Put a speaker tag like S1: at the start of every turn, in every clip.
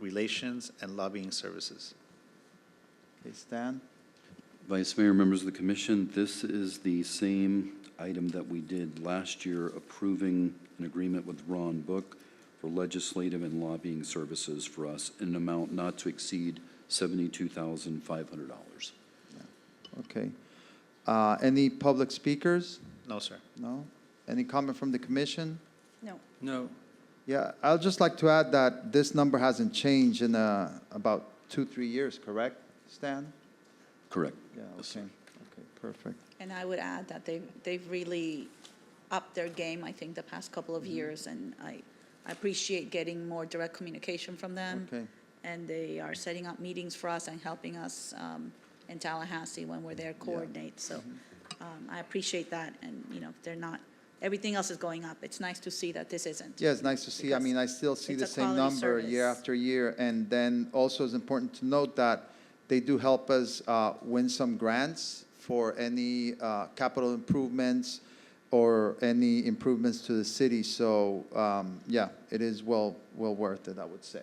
S1: Relations and Lobbying Services. Okay, Stan?
S2: Vice Mayor, members of the commission, this is the same item that we did last year, approving an agreement with Ron Book for legislative and lobbying services for us in an amount not to exceed $72,500.
S3: Okay. Uh, Any public speakers?
S1: No, sir.
S3: No? Any comment from the commission?
S4: No.
S5: No.
S3: Yeah, I'd just like to add that this number hasn't changed in uh, about two, three years, correct, Stan?
S2: Correct.
S3: Yeah,
S2: Yes,
S3: okay,
S2: sir.
S3: okay, perfect.
S4: And I would add that they've, they've really upped their game, I think, the past couple
S3: Mm-hmm.
S4: of years. And I, I appreciate getting more direct communication from them.
S3: Okay,
S4: And they are setting up meetings for us and helping us um, in Tallahassee when we're there coordinate. So
S3: Mm-hmm.
S4: um, I appreciate that. And, you know, they're not, everything else is going up. It's nice to see that this isn't.
S3: yeah, it's nice to see, I mean, I still see
S4: It's
S3: the
S4: a
S3: same
S4: quality
S3: number year
S4: service.
S3: after year. And then also it's important to note that they do help us uh, win some grants for any uh, capital improvements or any improvements to the city, so, um, yeah, it is well, well worth it, I would say.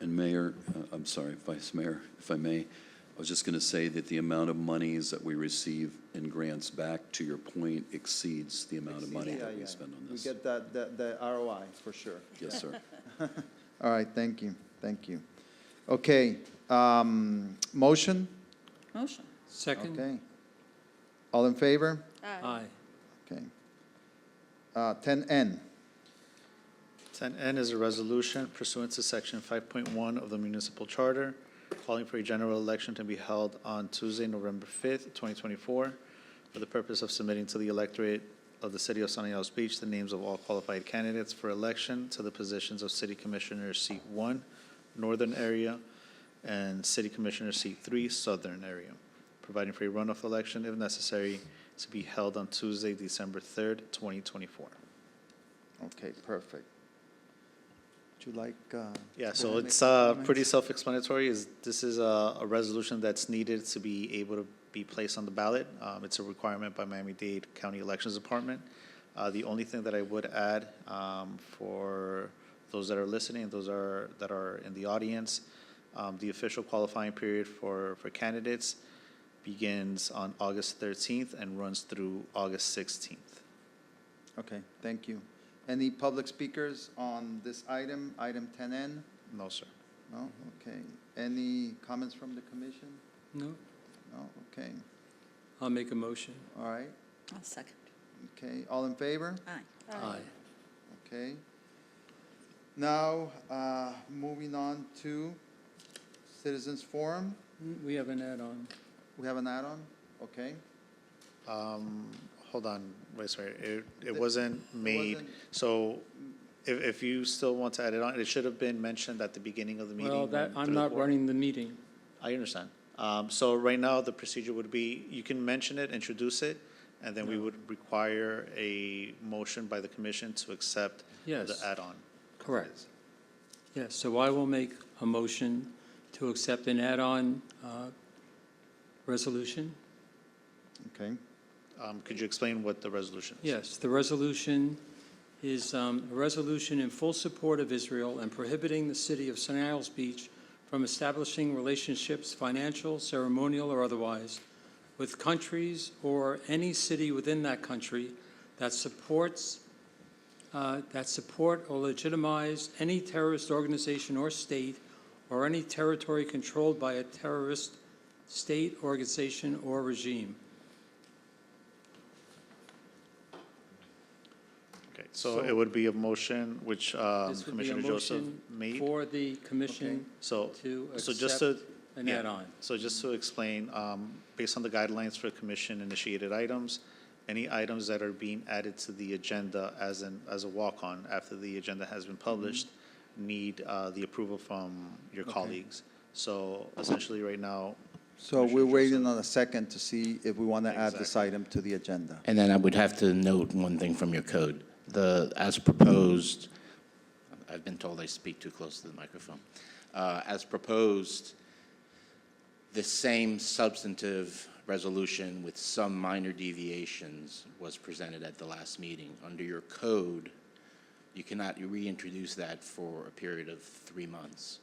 S2: And Mayor, uh, I'm sorry, Vice Mayor, if I may, I was just going to say that the amount of monies that we receive in grants back, to your point, exceeds the amount of money
S3: Yeah,
S2: that
S3: yeah.
S2: we spend on
S3: We
S2: this.
S3: get that, that, the ROI, for sure.
S2: Yes, sir.
S3: All right, thank you, thank you. Okay, um, motion?
S4: Motion.
S5: Second?
S3: Okay. All in favor?
S5: Aye.
S3: Okay. Uh, ten N,
S1: 10N is a resolution pursuant to Section 5.1 of the Municipal Charter, calling for a general election to be held on Tuesday, November 5th, 2024, for the purpose of submitting to the electorate of the City of Sunny Isles Beach the names of all qualified candidates for election to the positions of City Commissioner Seat 1, Northern Area, and City Commissioner Seat 3, Southern Area, providing for a runoff election if necessary to be held on Tuesday, December 3rd, 2024.
S3: okay, perfect. Would you like, uh?
S1: Yeah,
S3: to
S1: so
S3: make
S1: it's
S3: some
S1: uh,
S3: comments?
S1: pretty self-explanatory. Is This is a a resolution that's needed to be able to be placed on the ballot. Um, It's a requirement by Miami-Dade County Elections Department. Uh, The only thing that I would add um, for those that are listening, and those are, that are in the audience, um, the official qualifying period for, for candidates begins on August 13th and runs through August 16th.
S3: Okay, thank you. Any public speakers on this item, item ten N?
S1: No, sir.
S3: No, okay. Any comments from the commission?
S5: No.
S3: No, okay,
S5: I'll make a motion.
S3: all right,
S4: I'll second.
S3: okay, all in favor?
S4: Aye.
S5: Aye.
S3: Okay. Now, uh, moving on to citizens forum.
S5: Mm, We have an add-on.
S3: We have an add-on, okay?
S1: Um, Hold on, Vice Mayor. It- It
S3: The-
S1: wasn't made.
S3: wasn't-
S1: So if, if you still want to add it on, it should have been mentioned at the beginning of the meeting.
S5: Well, that,
S1: when-
S5: I'm
S1: through the
S5: not
S1: board.
S5: running the meeting.
S1: I understand. Um, so right now, the procedure would be, you can mention it, introduce it, and then we
S5: No.
S1: would require a motion by the commission to accept the
S5: Yes.
S1: add-on.
S5: Correct. Yes, so I will make a motion to accept an add-on uh, resolution.
S3: Okay.
S1: Um, could you explain what the resolution is?
S5: Yes, the resolution is um, a resolution in full support of Israel and prohibiting the city of Sunny Isles Beach from establishing relationships, financial, ceremonial, or otherwise, with countries or any city within that country that supports, uh, that support or legitimize any terrorist organization or state or any territory controlled by a terrorist state, organization, or regime.
S1: Okay, so it
S5: So-
S1: would be a motion which, um,
S5: This would be a
S1: Commissioner Joseph
S5: motion
S1: made.
S5: for the commission
S1: So,
S5: to
S1: so just
S5: accept
S1: to,
S5: an
S1: Yeah.
S5: add-on.
S1: So just to explain, um, based on the guidelines for commission-initiated items, any items that are being added to the agenda as an, as a walk-on after the agenda has
S5: Mm-hmm.
S1: been published need uh, the approval from your
S5: Okay.
S1: colleagues. So essentially, right now,
S3: So
S1: Commissioner
S3: we're waiting
S1: Joseph.
S3: on a second to see if we want to add this item to the agenda.
S6: And then I would have to note one thing from your code. The, as proposed, I've been told I speak too close to the microphone. Uh, As proposed, the same substantive resolution with some minor deviations was presented at the last meeting. Under your code, you cannot reintroduce that for a period of three months.